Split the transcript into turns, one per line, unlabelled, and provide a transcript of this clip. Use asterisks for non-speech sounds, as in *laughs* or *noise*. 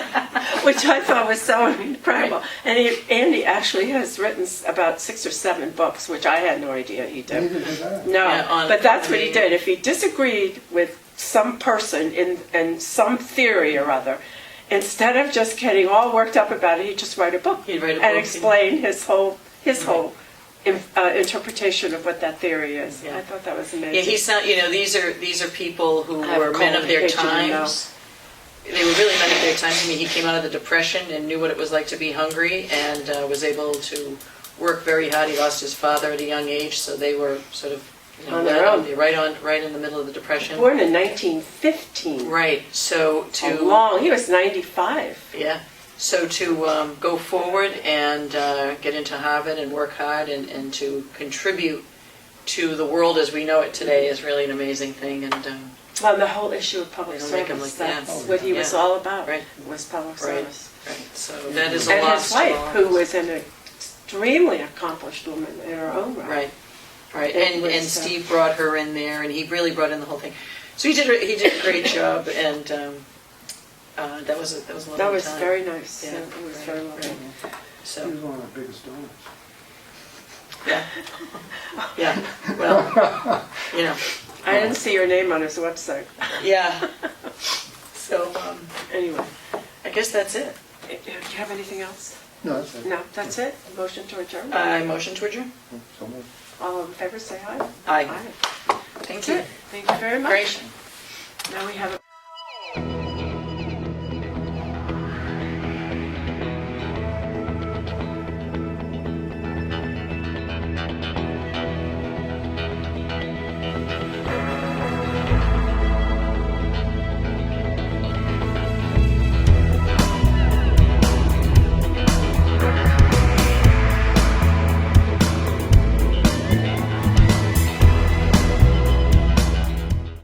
*laughs* which I thought was so incredible. And he, Andy actually has written s- about six or seven books, which I had no idea he did.
Neither did I.
No,
Yeah, on-
but that's
on
what he
the-
did. If he disagreed with some person in, in some theory or other, instead of just getting all worked up about it, he'd just write a book
He'd write a book
and
and-
explain his whole his whole in, uh, interpretation of what that theory is.
Yeah.
I thought that was amazing.
Yeah, he's not, you know, these are, these are people who
I have
were men of their
colon cancer,
times. They were really men of their times. I mean, he came out of the Depression and knew what it was like to be hungry and uh, was able to work very hard. He lost his father at a young age, so they were sort of, you know,
On their
right
own.
Right on, right in the middle of the Depression.
born in 1915.
Right, so
A
to.
long. He was 95.
Yeah, so to um, go forward and uh, get into Harvard and work hard and, and to contribute to the world as we know it today is really an amazing thing. And um,
Well, the whole issue of public
They don't make him
service.
look bad.
That's what he was
Yeah.
all about.
Right.
Was public
Right.
service.
right, so that is a
And
loss.
his
to
wife,
all of
who
us.
was an extremely accomplished woman in her own right.
right, right,
That
and
was,
and
uh,
Steve brought her in there, and he really brought in the whole thing. So he did he did
*laughs*
a great job, and um, uh, that was a, that was a lovely
That was
time.
very nice. Yeah,
Yeah,
it was
right,
very lovely.
right.
He
so
was one of the biggest donors.
yeah yeah well you know
I didn't see your name on his website. *laughs*
yeah so. Um,
Anyway, eh,
I guess that's it.
do you have anything else?
No, that's it.
No, that's it. Motion to adjourn.
I Uh, motion to adjourn.
So moved.
All in favor, say aye.
Aye.
Aye.
Thank
That's
you.
it. Thank you very much.
Great.
Now we have a